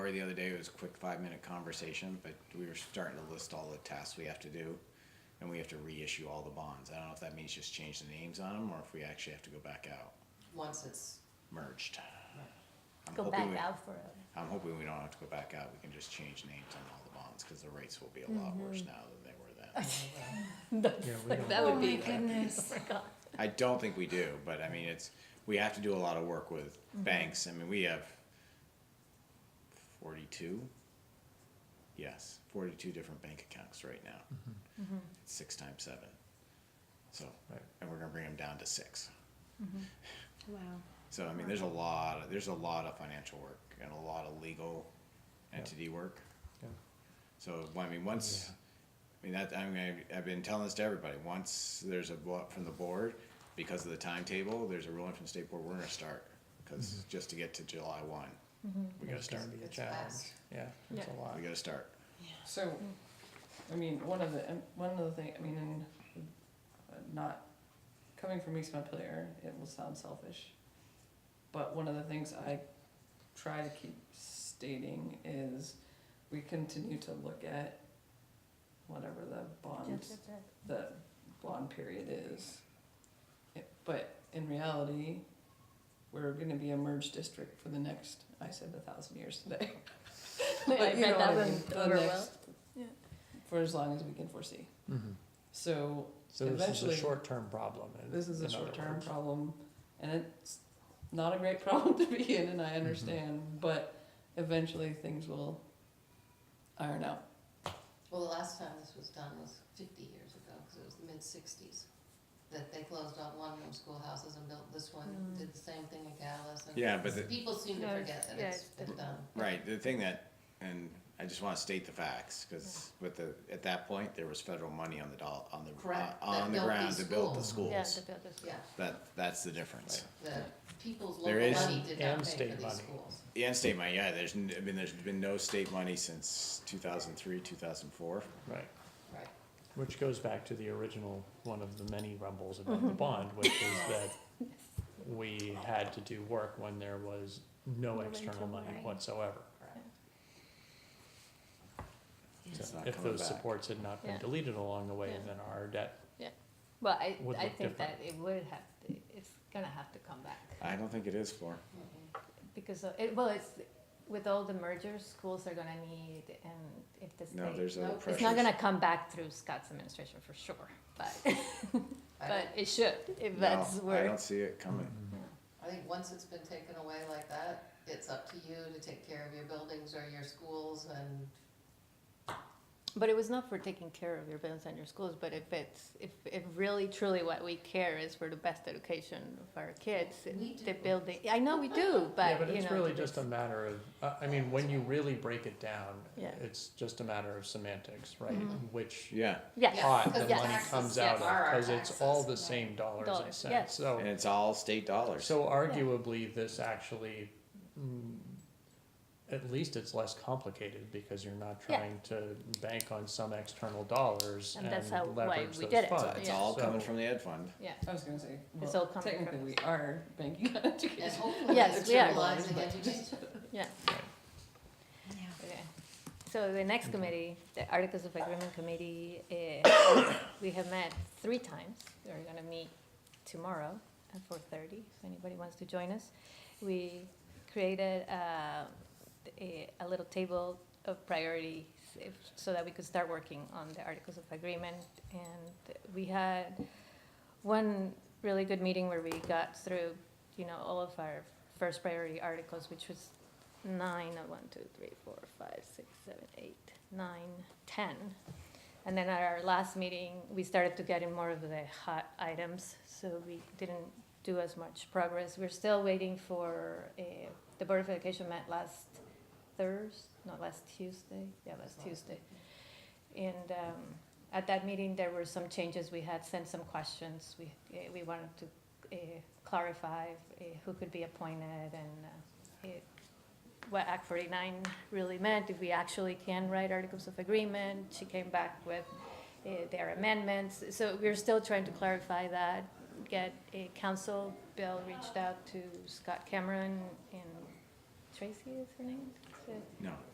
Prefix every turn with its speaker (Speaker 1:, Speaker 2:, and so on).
Speaker 1: the other day, it was a quick five-minute conversation, but we were starting to list all the tasks we have to do, and we have to reissue all the bonds. I don't know if that means just change the names on them, or if we actually have to go back out,
Speaker 2: once it's,
Speaker 1: merged. I'm
Speaker 3: Go
Speaker 1: hoping
Speaker 3: back
Speaker 1: we-
Speaker 3: out for it.
Speaker 1: I'm hoping we don't have to go back out, we can just change names on all the bonds, cause the rates will be a lot
Speaker 3: Mm-hmm.
Speaker 1: worse now than they were then.
Speaker 4: Yeah, we
Speaker 3: Like,
Speaker 4: don't-
Speaker 3: that
Speaker 2: Oh
Speaker 3: would be.
Speaker 2: my
Speaker 3: like,
Speaker 2: goodness.
Speaker 3: oh my God.
Speaker 1: I don't think we do, but I mean, it's, we have to do a lot of work with banks. I mean, we have forty-two, yes, forty-two different bank accounts right now. It's Six times seven. So,
Speaker 4: Right.
Speaker 1: and we're gonna bring them down to six.
Speaker 5: Wow.
Speaker 1: So, I mean, there's a lot, there's a lot of financial work and a lot of legal
Speaker 4: Yeah.
Speaker 1: entity work.
Speaker 4: Yeah.
Speaker 1: So, I mean, once, I mean, that, I mean, I've- I've been telling this to everybody, once there's a vote from the board, because of the timetable, there's a ruling from the state board, we're gonna start. Cause just to get to July one,
Speaker 3: Mm-hmm.
Speaker 1: we gotta
Speaker 4: It's gonna
Speaker 1: start,
Speaker 4: be a
Speaker 2: It's
Speaker 4: challenge.
Speaker 2: fast.
Speaker 4: Yeah, it's a lot.
Speaker 1: we gotta start.
Speaker 6: So, I mean, one of the, and one of the thing, I mean, and uh, not, coming from East Montpelier, it will sound selfish, but one of the things I try to keep stating is we continue to look at whatever the bond,
Speaker 3: Just-
Speaker 6: the bond period is. It- But in reality, we're gonna be a merged district for the next, I said a thousand years today.
Speaker 3: I
Speaker 6: But you
Speaker 3: read that
Speaker 6: know what I
Speaker 3: one
Speaker 6: mean, the
Speaker 3: over well.
Speaker 6: next-
Speaker 3: Yeah.
Speaker 6: For as long as we can foresee.
Speaker 1: Mm-hmm.
Speaker 4: Mhm.
Speaker 6: So
Speaker 4: So this is a
Speaker 6: Eventually-
Speaker 4: short-term problem. in-
Speaker 6: this is a
Speaker 4: in other
Speaker 6: short-term
Speaker 4: words.
Speaker 6: problem, and it's not a great problem to be in, and I understand, but eventually things will iron out.
Speaker 2: well, the last time this was done was fifty years ago, cause it was the mid-sixties. That they closed all one room schoolhouses and built this one,
Speaker 3: Mm.
Speaker 2: did the same thing in Callis, and
Speaker 1: Yeah, but the-
Speaker 2: people seem to
Speaker 5: No,
Speaker 2: forget that
Speaker 5: yeah,
Speaker 2: it's
Speaker 5: it's
Speaker 2: been done.
Speaker 1: Right, the thing that, and I just wanna state the facts, cause with the, at that point, there was federal money on the doll, on the,
Speaker 2: Correct, that
Speaker 1: on the
Speaker 2: built
Speaker 1: ground
Speaker 2: these
Speaker 1: to build the
Speaker 2: schools.
Speaker 1: schools.
Speaker 5: Yeah, to build this.
Speaker 2: Yeah,
Speaker 1: That, that's the difference.
Speaker 2: the people's
Speaker 1: There
Speaker 2: local
Speaker 1: is-
Speaker 2: money did
Speaker 4: and
Speaker 2: not pay
Speaker 4: state
Speaker 2: for these
Speaker 4: money.
Speaker 2: schools.
Speaker 1: Yeah, and state money, yeah, there's, n- I mean, there's been no state money since two thousand three, two thousand four.
Speaker 4: Right,
Speaker 2: Right,
Speaker 4: which goes back to the original, one of the many rumbles about the bond, which is that we had to do work when there was no
Speaker 3: No
Speaker 4: external
Speaker 3: internal
Speaker 4: money
Speaker 3: money.
Speaker 4: whatsoever.
Speaker 1: It's not
Speaker 4: If
Speaker 1: coming
Speaker 4: those
Speaker 1: back.
Speaker 4: supports had not been
Speaker 3: Yeah.
Speaker 4: deleted along the way,
Speaker 3: Yeah.
Speaker 4: then our debt,
Speaker 3: Well, I,
Speaker 4: Would
Speaker 3: I
Speaker 4: look
Speaker 3: think
Speaker 4: different.
Speaker 3: that it would have to, it's gonna have to come back.
Speaker 1: I don't think it is for,
Speaker 2: Mhm.
Speaker 3: Because, of- it, well, it's, with all the mergers, schools are gonna need, and if the
Speaker 1: no,
Speaker 3: state,
Speaker 1: there's other
Speaker 2: Nope. It's
Speaker 1: pressures.
Speaker 3: it's not gonna come back through Scott's administration for sure, but,
Speaker 2: I
Speaker 3: but
Speaker 2: don't-
Speaker 3: it should, if that's
Speaker 1: No, I
Speaker 3: where.
Speaker 1: don't see it coming.
Speaker 4: Mm-hmm.
Speaker 2: I think once it's been taken away like that, it's up to you to take care of your buildings or your schools and
Speaker 3: But it was not for taking care of your buildings and your schools, but if it's, if, if really truly what we care is for the best education of our kids,
Speaker 2: We
Speaker 3: the
Speaker 2: do.
Speaker 3: building, I know we do,
Speaker 4: yeah,
Speaker 3: but,
Speaker 4: but
Speaker 3: you
Speaker 4: it's
Speaker 3: know.
Speaker 4: really
Speaker 3: that
Speaker 4: just a
Speaker 3: it's-
Speaker 4: matter of, uh, I mean, when you really break it down,
Speaker 3: Yeah.
Speaker 4: it's just a matter of semantics, right? Which
Speaker 1: Yeah,
Speaker 3: Yes,
Speaker 4: pot
Speaker 2: because
Speaker 4: the
Speaker 3: yes.
Speaker 4: money
Speaker 2: taxes,
Speaker 4: comes
Speaker 2: yeah,
Speaker 4: out
Speaker 2: are
Speaker 4: of,
Speaker 2: our
Speaker 4: cause it's all the
Speaker 2: taxes.
Speaker 4: same dollars and
Speaker 3: Dollars,
Speaker 4: cents,
Speaker 3: yes.
Speaker 4: so.
Speaker 1: and it's all state dollars.
Speaker 4: So arguably, this actually, mm, at least it's less complicated because you're not
Speaker 3: Yeah.
Speaker 4: trying to bank on some external dollars and
Speaker 3: And that's how- why
Speaker 4: leverage
Speaker 3: we
Speaker 4: those
Speaker 3: did it.
Speaker 1: So
Speaker 4: funds.
Speaker 1: It's all
Speaker 4: So-
Speaker 1: coming from the ed fund.
Speaker 3: yeah,
Speaker 6: I was gonna say,
Speaker 3: It's all
Speaker 6: well,
Speaker 3: coming
Speaker 6: technically
Speaker 3: from
Speaker 6: we
Speaker 3: us.
Speaker 6: are banking on
Speaker 2: And
Speaker 6: education.
Speaker 2: hopefully
Speaker 3: Yes,
Speaker 2: it's
Speaker 3: we are.
Speaker 2: realizing education.
Speaker 3: yeah.
Speaker 5: Yeah.
Speaker 3: Okay. So the next committee, the Articles of Agreement Committee, eh, we have met three times. We're gonna meet tomorrow at four thirty, if anybody wants to join us. We created uh, a, a little table of priorities if, so that we could start working on the Articles of Agreement. And we had one really good meeting where we got through, you know, all of our first priority articles, which was nine, uh, one, two, three, four, five, six, seven, eight, nine, ten. And then at our last meeting, we started to get in more of the hot items, so we didn't do as much progress. We're still waiting for, uh, the Board of Education met last Thursday, not last Tuesday, yeah, last Tuesday. And, um, at that meeting, there were some changes, we had sent some questions, we, eh, we wanted to, uh, clarify, uh, who could be appointed and, uh, eh, what Act forty-nine really meant, if we actually can write articles of agreement. She came back with uh, their amendments, so we're still trying to clarify that, get a council. Bill reached out to Scott Cameron and Tracy is her name,
Speaker 1: No.